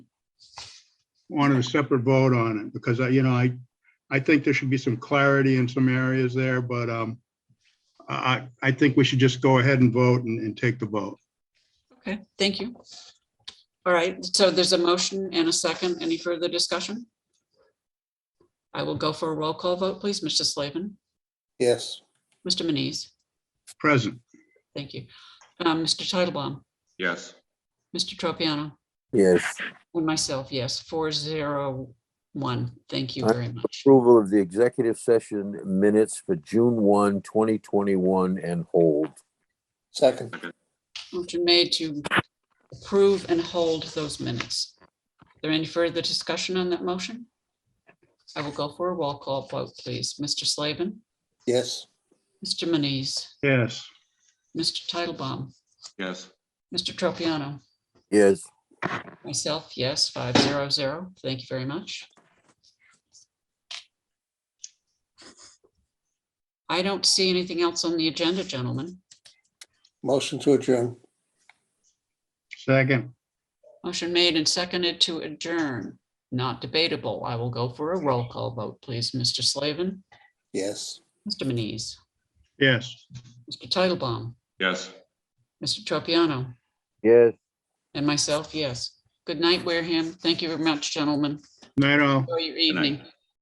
wanted a separate vote on it because I, you know, I, I think there should be some clarity in some areas there, but um, I, I I think we should just go ahead and vote and, and take the vote. Okay, thank you. All right, so there's a motion and a second. Any further discussion? I will go for a roll call vote, please. Mr. Slavin, Yes. Mr. Manise, Present. thank you. Um, Mr. Titlebaum, yes, Mr. Tropiano, Yes. and myself, yes, four zero one. Thank you Aye. very much. Approval of the executive session minutes for June 1, 2021 and hold. Second. Motion made to approve and hold those minutes. There any further discussion on that motion? I will go for a roll call vote, please. Mr. Slavin, Yes. Mr. Manise, Yes. Mr. Titlebaum, yes, Mr. Tropiano, Yes. myself, yes, five zero zero. Thank you very much. I don't see anything else on the agenda, gentlemen. Motion to adjourn. Second. Motion made and seconded to adjourn, not debatable. I will go for a roll call vote, please. Mr. Slavin, Yes. Mr. Manise, Yes. Mr. Titlebaum, yes. Mr. Tropiano, Yes. and myself, yes. Good night, Wareham. Thank you very much, gentlemen. Night all. Enjoy your night. evening.